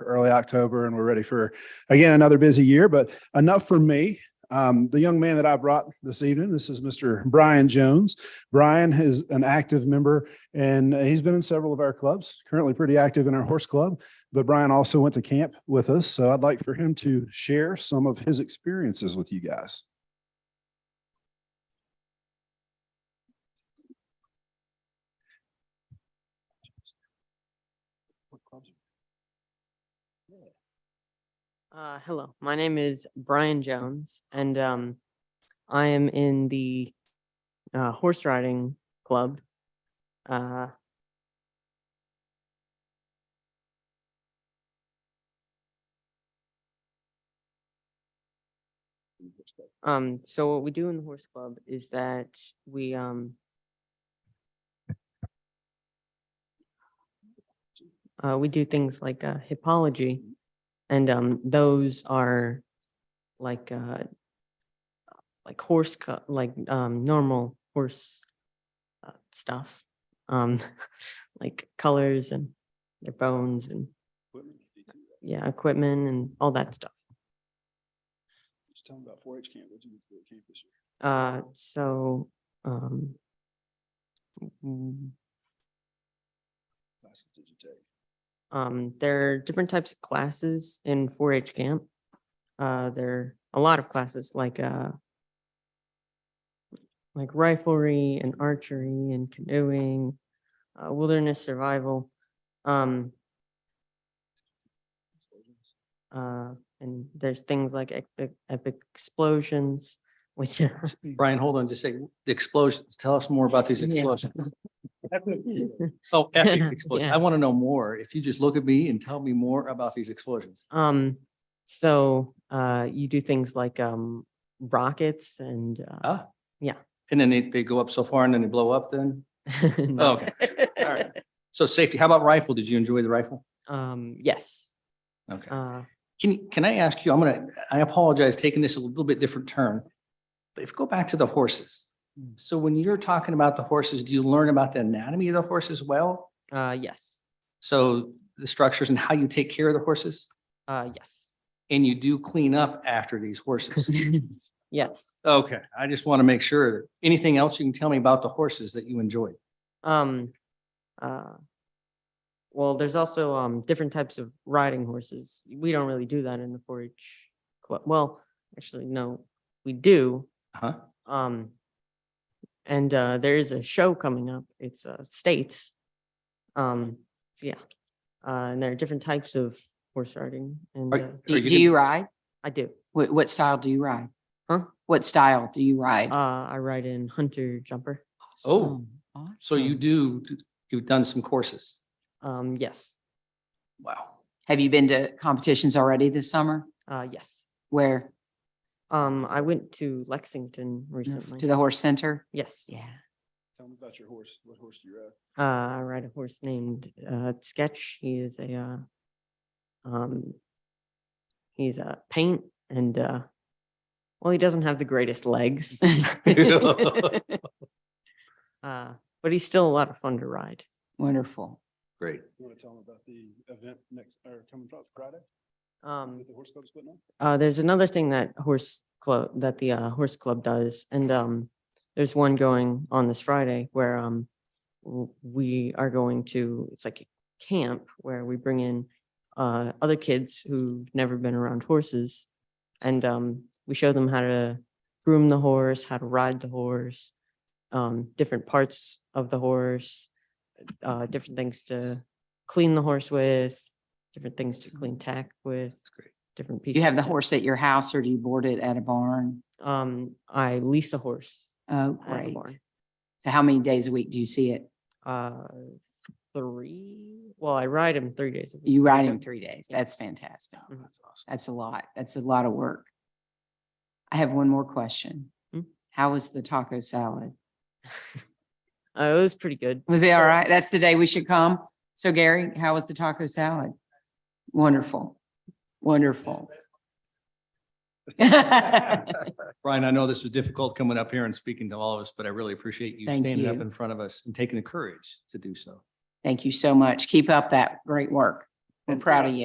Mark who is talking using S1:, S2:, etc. S1: early October and we're ready for, again, another busy year, but enough for me. Um, the young man that I brought this evening, this is Mr. Brian Jones. Brian is an active member and he's been in several of our clubs, currently pretty active in our horse club. But Brian also went to camp with us, so I'd like for him to share some of his experiences with you guys.
S2: Uh, hello, my name is Brian Jones and, um, I am in the, uh, horse riding club. Uh, um, so what we do in the horse club is that we, um, uh, we do things like, uh, hippology. And um, those are like uh, like horse co- like um, normal horse uh, stuff, um, like colors and their bones and yeah, equipment and all that stuff.
S1: Just tell him about four H camp, what you do at camp this year.
S2: Uh, so um, mm,
S1: Classes did you take?
S2: um, there are different types of classes in 4-H camp. Uh, there are a lot of classes like uh, like riflery and archery and canoeing, uh, wilderness survival, um, uh, and there's things like epic, epic explosions, which are
S3: Brian, hold on, just say, the explosions, tell us more about these
S2: Yeah.
S3: explosions. Oh, epic explosion.
S2: Yeah.
S3: I want to know more. If you just look at me and tell me more about these explosions.
S2: Um, so, uh, you do things like, um, rockets and, uh,
S3: Ah.
S2: Yeah.
S3: And then they, they go up so far and then they blow up then?
S2: no.
S3: okay. All right. So safety, how about rifle? Did you enjoy the rifle?
S2: Um, yes,
S3: Okay.
S2: uh,
S3: Can, can I ask you, I'm gonna, I apologize, taking this a little bit different turn. But if, go back to the horses. So when you're talking about the horses, do you learn about the anatomy of the horse as well?
S2: uh, yes,
S3: So the structures and how you take care of the horses?
S2: uh, yes.
S3: And you do clean up after these horses?
S2: Yes,
S3: Okay, I just want to make sure. Anything else you can tell me about the horses that you enjoyed?
S2: um, uh, well, there's also, um, different types of riding horses. We don't really do that in the four H club. Well, actually, no, we do.
S3: Huh?
S2: Um, and, uh, there is a show coming up. It's, uh, States. Um, so yeah, uh, and there are different types of horse riding and,
S3: Are-
S2: uh,
S3: are
S4: Do, do
S3: gonna-
S4: you ride?
S2: I do.
S4: What, what style do you ride?
S2: Huh?
S4: What style do you ride?
S2: Uh, I ride in hunter jumper.
S3: Oh,
S4: Awesome,
S3: So you
S4: awesome.
S3: do, you've done some courses.
S2: Um, yes,
S3: Wow.
S4: Have you been to competitions already this summer?
S2: uh, yes.
S4: Where?
S2: Um, I went to Lexington recently.
S4: To the horse center?
S2: Yes,
S4: Yeah.
S1: Tell him about your horse, what horse do you ride?
S2: uh, I ride a horse named, uh, Sketch. He is a, uh, um, he's a paint and, uh, well, he doesn't have the greatest legs. Uh, but he's still a lot of fun to ride.
S4: Wonderful.
S3: Great.
S1: You want to tell him about the event next, or coming Fri- Friday,
S2: Um,
S1: that the horse club's putting on?
S2: Uh, there's another thing that horse club, that the uh, horse club does, and um, there's one going on this Friday where um, w- we are going to, it's like a camp where we bring in uh, other kids who've never been around horses. And um, we show them how to groom the horse, how to ride the horse, um, different parts of the horse, uh, different things to clean the horse with, different things to clean tack with,
S3: That's great.
S2: different
S4: Do
S2: pieces.
S4: you have the
S2: to-
S4: horse at your house or do you board it at a barn?
S2: um, I lease a horse.
S4: Oh,
S2: at a
S4: great.
S2: barn.
S4: So how many days a week do you see it?
S2: Uh, three, well, I ride him three days. a week.
S4: You
S2: I
S4: ride
S2: go-
S4: him three days.
S2: Yeah.
S4: That's fantastic.
S2: Mhm.
S3: Oh, That's awesome.
S4: That's a lot. That's a lot of work. I have one more question.
S2: Hmm?
S4: How was the taco salad?
S2: Uh, it was pretty good.
S4: Was it all right? That's the day we should come. So Gary, how was the taco salad? Wonderful, wonderful. Thank
S3: Brian, I know this was difficult coming up here and speaking to all of us, but I really appreciate you
S4: Thank
S3: standing up
S4: you.
S3: in front of us and taking the courage to do so.
S4: you so much. Keep up that great work. We're proud of you.